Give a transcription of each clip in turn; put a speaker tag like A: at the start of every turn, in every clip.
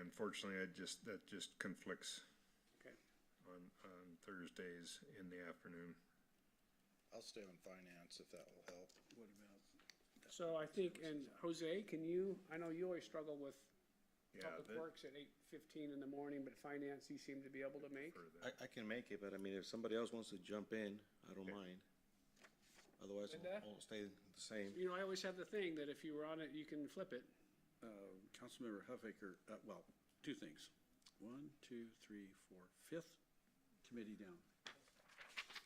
A: unfortunately, I just, that just conflicts
B: Okay.
A: on, on Thursdays in the afternoon.
C: I'll stay on finance if that will help.
B: So I think, and Jose, can you, I know you always struggle with
A: Yeah,
B: Public
A: that-
B: Works at eight fifteen in the morning, but finance you seem to be able to make.
A: for that.
D: I, I can make it, but I mean, if somebody else wants to jump in, I don't mind. Otherwise,
B: Linda?
D: I'll, I'll stay the same.
B: You know, I always have the thing that if you were on it, you can flip it.
E: Uh, Councilmember Huffaker, uh, well, two things. One, two, three, four, fifth committee down.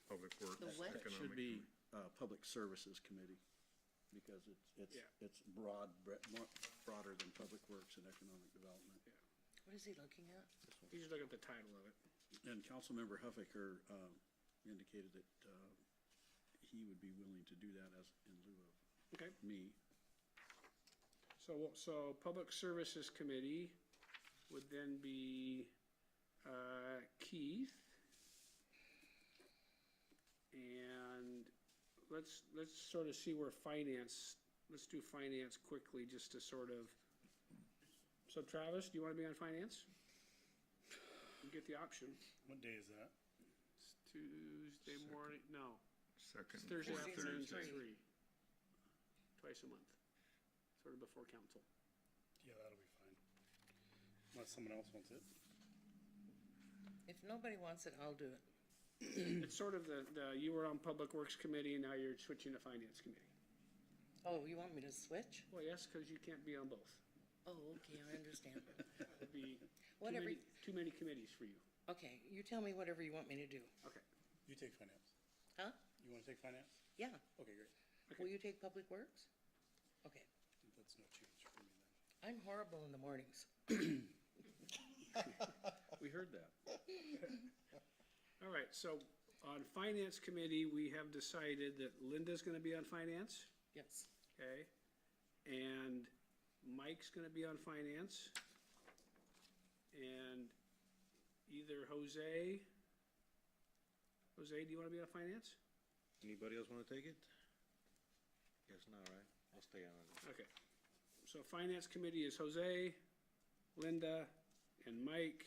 A: Public
F: The
A: Works,
F: what?
E: That
A: Economic.
E: should be, uh, Public Services Committee, because it's, it's,
B: Yeah.
E: it's broad, bre- more- broader than Public Works and Economic Development.
F: What is he looking at?
B: You just look at the title of it.
E: And Councilmember Huffaker, um, indicated that, uh, he would be willing to do that as, in lieu of
B: Okay,
E: me.
B: so, we'll- so Public Services Committee would then be, uh, Keith. And let's, let's sort of see where finance, let's do finance quickly, just to sort of. So Travis, do you wanna be on finance? You get the option.
G: What day is that?
B: It's Tuesday morning, no,
A: Second.
B: it's Thursday
A: fourth
F: Thursdays at
B: afternoon,
A: Thursday.
B: three. Twice a month, sort of before council.
G: Yeah, that'll be fine. Unless someone else wants it.
F: If nobody wants it, I'll do it.
B: It's sort of the, the, you were on Public Works Committee and now you're switching to Finance Committee.
F: Oh, you want me to switch?
B: Well, yes, because you can't be on both.
F: Oh, okay, I understand.
B: It'd be too
F: Whatever
B: many,
F: you-
B: too many committees for you.
F: Okay, you tell me whatever you want me to do.
B: Okay.
G: You take finance.
F: Huh?
G: You wanna take finance?
F: Yeah.
G: Okay, great.
F: Will you take Public Works? Okay.
G: That's no change for me then.
F: I'm horrible in the mornings.
E: We heard that.
B: All right, so on Finance Committee, we have decided that Linda's gonna be on Finance,
F: Yes.
B: okay? And Mike's gonna be on Finance. And either Jose, Jose, do you wanna be on Finance?
D: Anybody else wanna take it? Guess not, right? I'll stay on it.
B: Okay. So Finance Committee is Jose, Linda, and Mike.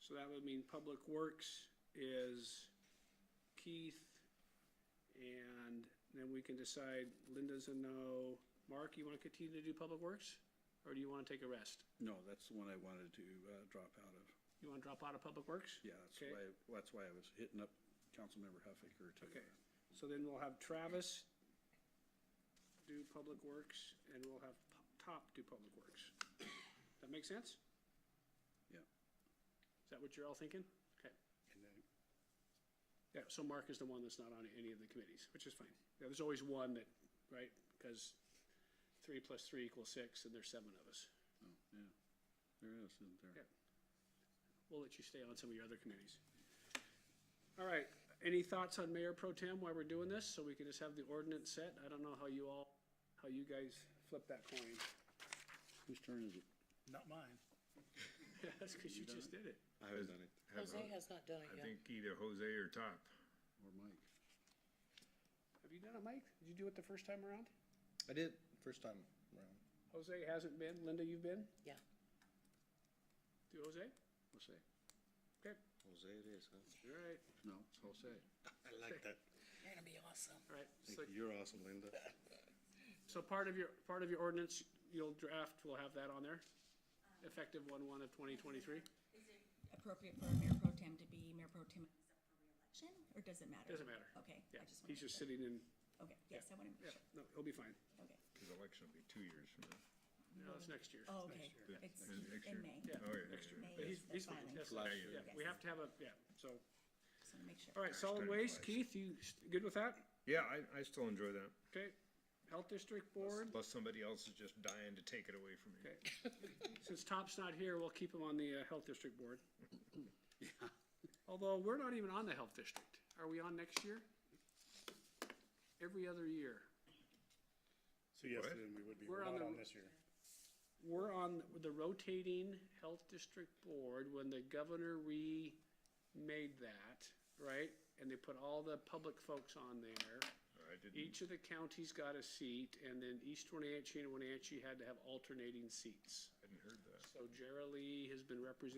B: So that would mean Public Works is Keith. And then we can decide Linda's a no. Mark, you want to continue to do Public Works? Or do you want to take a rest?
E: No, that's the one I wanted to, uh, drop out of.
B: You want to drop out of Public Works?
E: Yeah, that's
B: Okay.
E: why, that's why I was hitting up Councilmember Huffaker to.
B: Okay. So then we'll have Travis do Public Works and we'll have P- Top do Public Works. That make sense?
E: Yeah.
B: Is that what you're all thinking? Okay.
G: And then,
B: Yeah, so Mark is the one that's not on any of the committees, which is fine. Yeah, there's always one that, right, because three plus three equals six, and there's seven of us.
E: Oh, yeah. There is, isn't there?
B: Yeah. We'll let you stay on some of your other committees. All right, any thoughts on Mayor Pro Tem while we're doing this, so we can just have the ordinance set? I don't know how you all, how you guys flip that coin.
E: Whose turn is it?
G: not mine.
B: That's because you just did it.
D: I haven't done it.
A: Have
F: Jose
A: a-
F: has not done it
A: I
F: yet.
A: think either Jose or Top.
E: Or Mike?
B: Have you done it, Mike? Did you do it the first time around?
C: I did first time around.
B: Jose hasn't been, Linda, you've been?
F: Yeah.
B: Do Jose?
E: Jose.
B: Okay,
D: Jose it is, huh?
B: all right,
E: No, it's Jose.
C: I like that.
F: You're gonna be awesome.
B: all right. So-
D: Thank you. You're awesome, Linda.
B: So part of your, part of your ordinance, you'll draft, we'll have that on there,
H: Um,
B: effective one one of twenty twenty-three.
H: Is it appropriate for Mayor Pro Tem to be Mayor Pro Tem himself for reelection, or does it matter?
B: Doesn't matter.
H: Okay,
B: Yeah,
H: I just want
B: he's
H: to make
B: just
H: sure.
B: sitting in,
H: Okay, yes, I want to make
B: yeah, no,
H: sure,
B: he'll be fine.
H: okay.
A: His election will be two years from now.
B: No, it's next year.
H: Oh, okay,
A: Yeah,
H: it's
A: next year.
H: in May,
B: Yeah,
A: Oh, yeah,
B: next year.
A: yeah,
H: May
B: But
H: is
B: he's,
H: the
B: he's fine,
H: filing.
B: yes,
D: Last
B: yeah,
D: year.
B: we have to have a, yeah, so,
H: just want to make sure.
B: all right, solid
A: Starting
B: waste,
A: twice.
B: Keith, you s- good with that?
A: Yeah, I, I still enjoy that.
B: Okay, Health District Board,
A: Plus somebody else is just dying to take it away from me.
B: okay. Since Top's not here, we'll keep him on the uh, Health District Board. Although, we're not even on the Health District. Are we on next year? Every other year.
G: So yes,
A: What?
G: then we would be,
B: We're
G: we're
B: on
G: not
B: the-
G: on this year.
B: We're on the rotating health district board when the governor remade that, right? And they put all the public folks on there.
A: I didn't,
B: Each of the counties got a seat, and then East Wenatchee and Wenatchee had to have alternating seats.
A: hadn't heard that.
B: So Jerry Lee has been representing